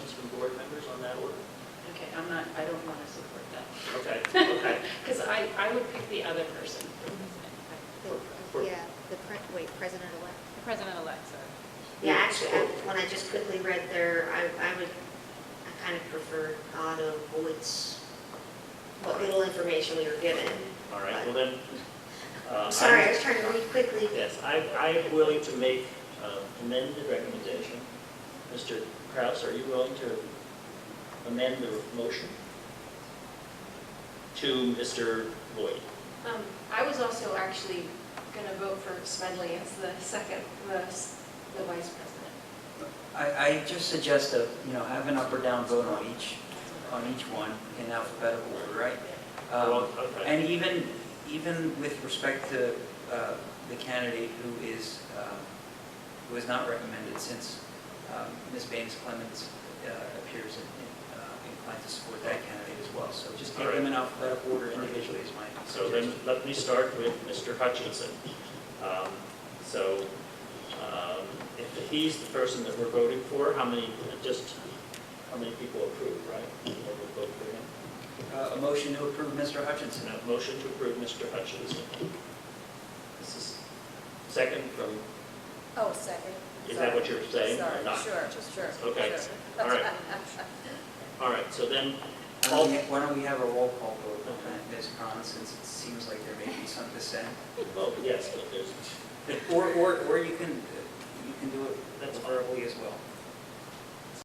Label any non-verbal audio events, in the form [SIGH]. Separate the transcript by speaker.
Speaker 1: that order?
Speaker 2: Okay, I'm not, I don't want to support that.
Speaker 1: Okay,
Speaker 2: [LAUGHS]
Speaker 1: okay.
Speaker 2: Because I, I would pick the other person. for this thing.
Speaker 1: For-
Speaker 3: The- Yeah, the, pre- wait, president-elect.
Speaker 4: The president-elect, sorry.
Speaker 5: Yeah, actually, I- when I just quickly read there, I, I would, I kind of prefer Otto Woods, what little information we were given.
Speaker 1: All right, well then. uh,
Speaker 5: I'm sorry, I
Speaker 1: I'm-
Speaker 5: was trying to read quickly.
Speaker 1: Yes, I, I am willing to make uh, amended recommendation. Mr. Kraus, are you willing to amend the motion? To Mr. Lloyd?
Speaker 6: Um, I was also actually going to vote for Smedley as the second, the s- the vice president.
Speaker 7: I, I just suggest a, you know, have an up or down vote on each, on each one in alphabetical order, right?
Speaker 1: Well,
Speaker 7: Um,
Speaker 1: Oh, okay.
Speaker 7: And even, even with respect to uh, the candidate who is, um, who is not recommended, since um, Ms. Baines Clemens uh, appears in- in, uh, inclined to support that candidate as well. So just take them in alphabetical order individually is my
Speaker 1: So then,
Speaker 7: suggestion.
Speaker 1: let me start with Mr. Hutchinson. Um, So, um, if he's the person that we're voting for, how many, just, how many people approve, right? That would vote for him?
Speaker 7: Uh, A motion to approve Mr. Hutchinson.
Speaker 1: And a motion to approve Mr. Hutchinson. This is second from,
Speaker 4: Oh, second.
Speaker 1: is that what you're saying or not?
Speaker 4: Sorry, sure, sure.
Speaker 1: Okay,
Speaker 4: sure.
Speaker 1: all right. All right, so then,
Speaker 7: Why don't we- why don't we have a roll call vote on that, Ms. Khan, since it seems like there may be some dissent?
Speaker 1: well, yes, but there's,
Speaker 7: Or, or, or you can, you can do it verbally as well.